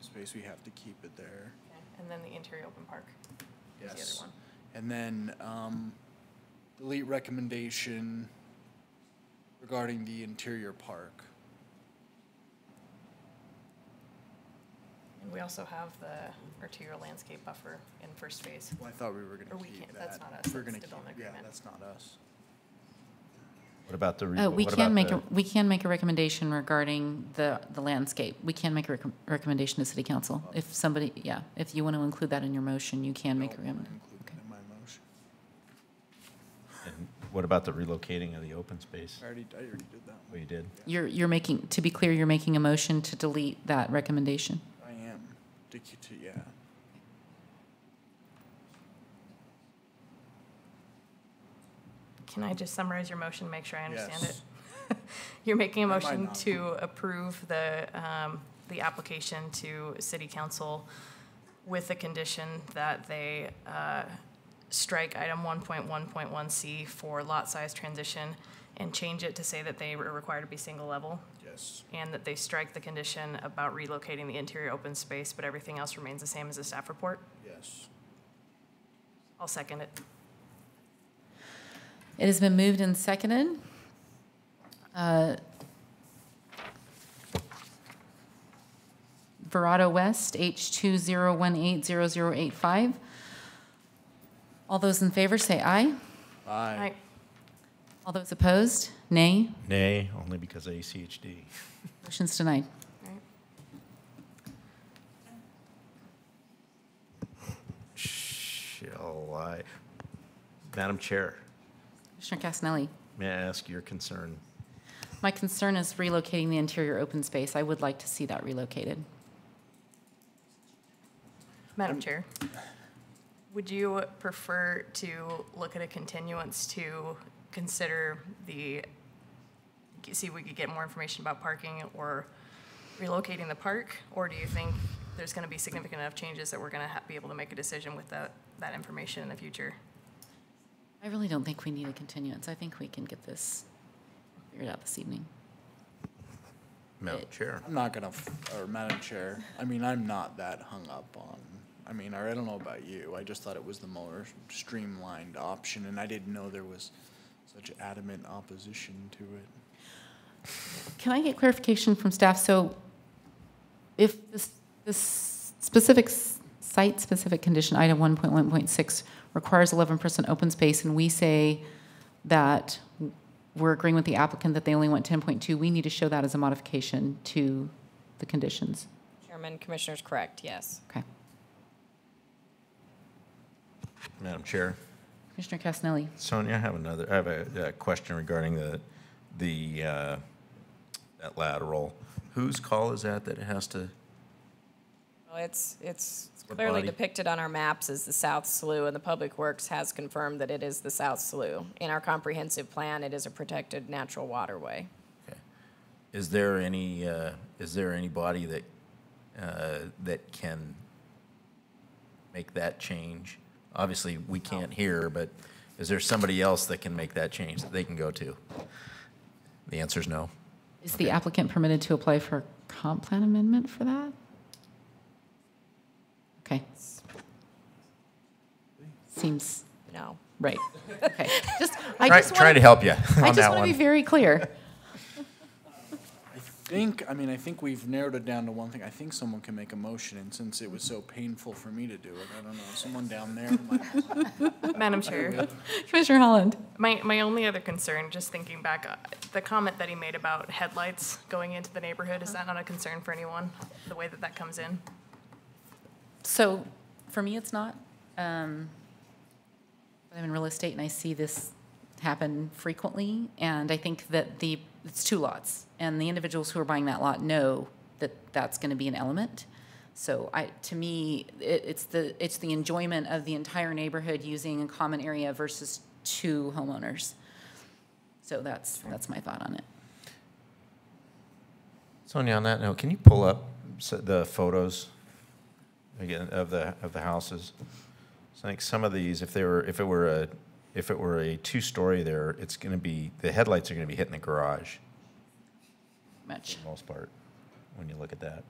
space, we have to keep it there. And then the interior open park. is the Yes. other one. And then, um, delete recommendation regarding the interior park. And we also have the arterial landscape buffer in first phase. Well, I thought we were Or gonna we keep can't- that. that's not us, We're that's gonna development keep- Yeah, agreement. that's not us. What about the? re- Uh, we what can about make, the- a we can make a recommendation regarding the, the landscape. We can make a recom- recommendation to city council. If somebody, yeah, if you want to include that in your motion, you can make a Don't wanna recommendation. include that in my motion. and What about the relocating of the open space? I already, I already did that Well, one. you did. You're, you're making, to be clear, you're making a motion to delete that recommendation. I am, to, keep- to, yeah. Can I just summarize your motion, make sure I understand it? Yes. You're making a I might motion not. to approve the, um, the application to city council with the condition that they, uh, strike item one point one point one C for lot size transition and change it to say that they were required to be single level Yes. and that they strike the condition about relocating the interior open space, but everything else remains the same as the staff report. Yes. I'll second it. It has been moved and seconded. Uh, Verado West, H20180085. All those in favor say aye. Aye. Aye. All those opposed, nay. Nay, only because of ACHD. Motion's denied. Right. Shall I? Madam Chair, Commissioner Casinelli, may I ask your concern? my concern is relocating the interior open space. I would like to see that relocated. Madam Chair, would you prefer to look at a continuance to consider the, see if we could get more information about parking or relocating the park? Or do you think there's going to be significant enough changes that we're going to be able to make a decision with that, that information in the future? I really don't think we need a continuance. I think we can get this figured out this evening. Madam Eh. Chair. I'm not gonna, f- or Madam Chair, I mean, I'm not that hung up on, I mean, I don't know about you, I just thought it was the more streamlined option, and I didn't know there was such adamant opposition to it. Can I get clarification from staff? So if this, this specific, s- site-specific condition, item 1.1.6, requires 11% open space, and we say that we're agreeing with the applicant that they only want 10.2, we need to show that as a modification to the conditions. Chairman, Commissioners, correct, yes. Okay. Madam Chair. Commissioner Casinelli? Sonia, I have another, I have a, a question regarding the, the, uh, that lateral. Whose call is that that it has to, Well, it's, it's the clearly body. depicted on our maps as the South Slough, and the Public Works has confirmed that it is the South Slough. In our comprehensive plan, it is a protected natural waterway. is there any, uh, is there anybody that, uh, that can make that change? Obviously, we can't hear, but is there somebody else that can make that change that they can go to? The answer is no. Is the applicant permitted to apply for a comp plan amendment for that? Okay. Seems No. right. Okay. Just, I Try, just try to help want, you on I that just want to one. be very clear. I think, I mean, I think we've narrowed it down to one thing, I think someone can make a motion, and since it was so painful for me to do it, I don't know, someone down there might. Madam Chair. Commissioner Holland? My, my only other concern, just thinking back, uh, the comment that he made about headlights going into the neighborhood, is that not a concern for anyone? The way that that comes in? So for me, it's not. Um, but I'm in real estate and I see this happen frequently. And I think that the, it's two lots. And the individuals who are buying that lot know that that's going to be an element. So I, to me, it, it's the, it's the enjoyment of the entire neighborhood using a common area versus two homeowners. So that's, that's my thought on it. Sonia, on that note, can you pull up s- the photos again of the, of the houses? So I think some of these, if they were, if it were a, if it were a two-story there, it's gonna be, the headlights are gonna be hitting the garage Much. for the most part, when you look at that.